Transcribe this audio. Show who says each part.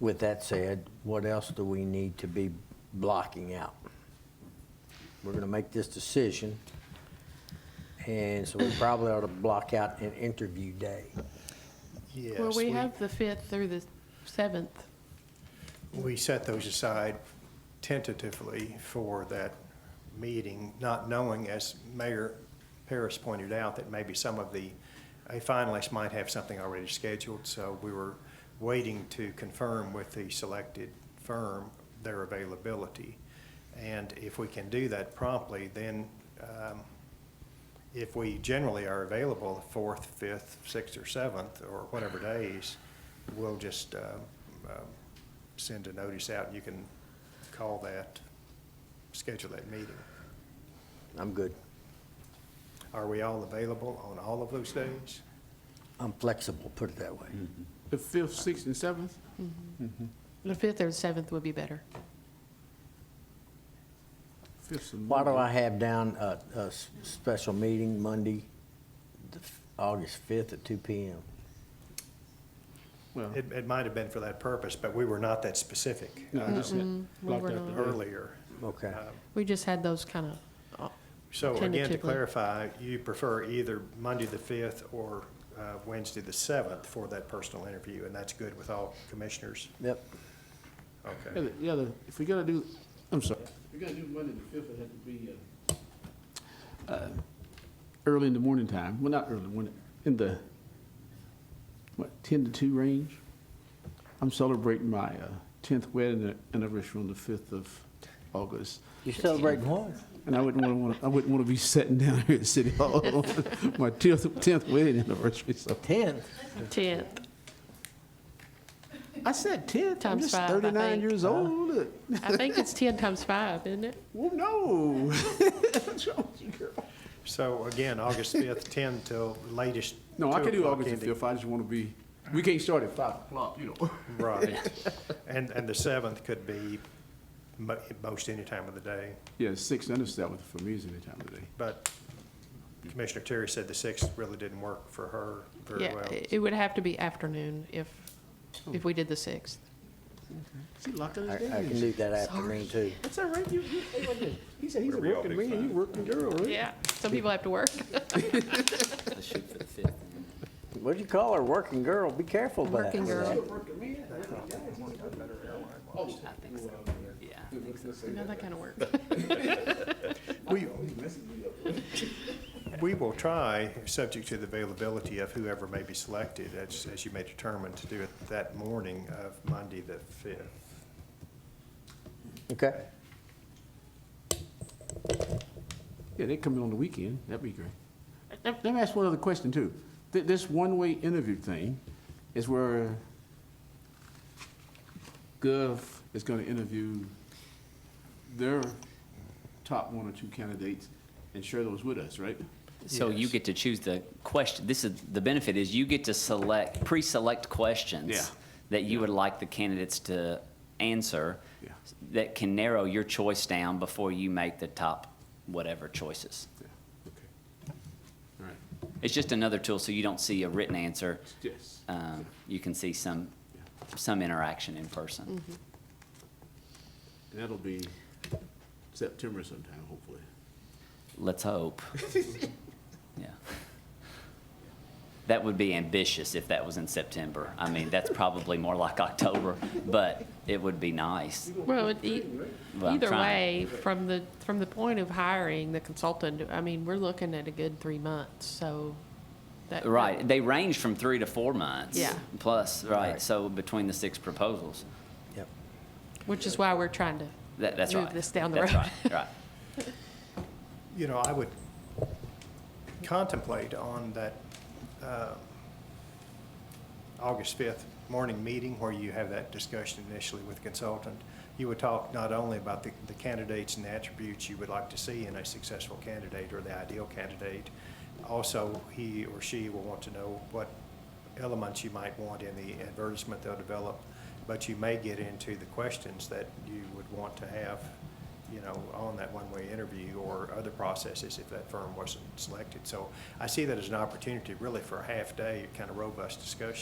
Speaker 1: With that said, what else do we need to be blocking out? We're gonna make this decision, and so we probably ought to block out an interview day.
Speaker 2: Yes.
Speaker 3: Well, we have the 5th through the 7th.
Speaker 2: We set those aside tentatively for that meeting, not knowing, as Mayor Paris pointed out, that maybe some of the uh, finalists might have something already scheduled, so we were waiting to confirm with the selected firm their availability. And if we can do that promptly, then um, if we generally are available the fourth, fifth, sixth, or seventh, or whatever days, we'll just uh, um, send a notice out, and you can call that, schedule that meeting.
Speaker 1: I'm good.
Speaker 2: Are we all available on all of those days?
Speaker 1: I'm flexible, put it that way.
Speaker 4: The fifth, sixth, and seventh?
Speaker 3: The 5th or the 7th would be better.
Speaker 4: Fifth and
Speaker 1: Why do I
Speaker 4: Monday.
Speaker 1: have down a, a s- special meeting Monday, the f- August fifth at two P M?
Speaker 4: Well,
Speaker 2: It, it might have been for that purpose, but we were not that specific uh, Mm-hmm.
Speaker 4: no, I just had
Speaker 3: we
Speaker 4: blocked
Speaker 3: were
Speaker 4: out the
Speaker 3: not.
Speaker 4: early.
Speaker 2: earlier.
Speaker 1: Okay.
Speaker 2: Uh,
Speaker 3: We just had those kind of,
Speaker 2: So again, to
Speaker 3: Tentatively.
Speaker 2: clarify, you prefer either Monday the fifth or uh, Wednesday the seventh for that personal interview, and that's good with all commissioners?
Speaker 1: Yep,
Speaker 4: Yeah,
Speaker 2: Okay.
Speaker 4: the- Yeah, the- if we gotta do, I'm sorry. If we gotta do Monday the fifth, it had to be, uh, Early in the morning time, well, not early, when, in the, what, ten to two range? I'm celebrating my uh, tenth wedding anniversary on the fifth of August.
Speaker 1: you celebrating what?
Speaker 4: And I wouldn't want to, I wouldn't want to be sitting down here at City Hall on my tenth, tenth wedding anniversary, so.
Speaker 1: Tenth?
Speaker 3: 10th.
Speaker 4: I said tenth, I'm
Speaker 3: Times
Speaker 4: just
Speaker 3: five, I
Speaker 4: thirty-nine
Speaker 3: think.
Speaker 4: years old. Look,
Speaker 3: I think it's 10 times 5, isn't it?
Speaker 4: Well, no. What's wrong with you, girl?
Speaker 2: So again, August fifth, ten till latest.
Speaker 4: No, I
Speaker 2: two
Speaker 4: can do
Speaker 2: o'clock
Speaker 4: August the
Speaker 2: ending.
Speaker 4: fifth, I just want to be, we can't start at five o'clock, you know.
Speaker 2: Right. And, and the seventh could be mo- most any time of the day,
Speaker 4: Yeah, six and a seventh for me is any time of the day.
Speaker 2: but Commissioner Terry said the sixth really didn't work for her very
Speaker 3: Yeah,
Speaker 2: well.
Speaker 3: it it would have to be afternoon if, if we did the 6th.
Speaker 4: See, locked in
Speaker 1: I, I
Speaker 4: his
Speaker 1: can do that afternoon too.
Speaker 4: That's all right, you, you, he said he's a
Speaker 5: Whatever y'all
Speaker 4: working
Speaker 5: think's
Speaker 4: man, you
Speaker 5: fine.
Speaker 4: working girl, right?
Speaker 3: Yeah, some people have to work.
Speaker 6: Let's shoot for the fifth.
Speaker 1: What'd you call her, working girl? Be careful about
Speaker 3: Working girl.
Speaker 6: Yeah.
Speaker 3: You know, that kind of work.
Speaker 2: We, we will try, subject to the availability of whoever may be selected, as, as you may determine, to do it that morning of Monday the fifth.
Speaker 1: Okay,
Speaker 4: Yeah, they come in on the weekend, that'd be great. Let let me ask one other question too. Th- This one-way interview thing is where Gov is gonna interview their top one or two candidates and share those with us, right?
Speaker 6: So you
Speaker 2: Yes.
Speaker 6: get to choose the question, this is, the benefit is you get to select, pre-select
Speaker 4: Yeah.
Speaker 6: questions that you would like the candidates to answer
Speaker 4: Yeah.
Speaker 6: that can narrow your choice down before you make the top whatever choices.
Speaker 4: Yeah, okay. All right,
Speaker 6: It's just another tool, so you don't see a written answer.
Speaker 4: yes.
Speaker 6: Um, You can see some,
Speaker 4: Yeah.
Speaker 6: some interaction in person.
Speaker 4: And that'll be September sometime, hopefully.
Speaker 6: Let's hope. Yeah. That would be ambitious if that was in September. I mean, that's probably more like October, but it would be nice.
Speaker 3: Well, it- e-
Speaker 6: Well, I'm
Speaker 3: either way,
Speaker 6: trying.
Speaker 3: from the, from the point of hiring the consultant, I mean, we're looking at a good three months, so. that- that-
Speaker 6: Right, they range from three to four months.
Speaker 3: Yeah.
Speaker 6: Plus, right,
Speaker 1: Right.
Speaker 6: so between the six proposals.
Speaker 1: yep.
Speaker 3: Which is why we're trying to.
Speaker 6: That, that's right.
Speaker 3: Move this down the
Speaker 6: That's
Speaker 3: road.
Speaker 6: right, right.
Speaker 2: You know, I would contemplate on that uh, August 5th morning meeting where you have that discussion initially with the consultant, you would talk not only about the the candidates and the attributes you would like to see in a successful candidate or the ideal candidate, also he or she will want to know what elements you might want in the advertisement they'll develop, but you may get into the questions that you would want to have, you know, on that one-way interview or other processes if that firm wasn't selected. So I see that as an opportunity really for a half-day, kind of robust discussion.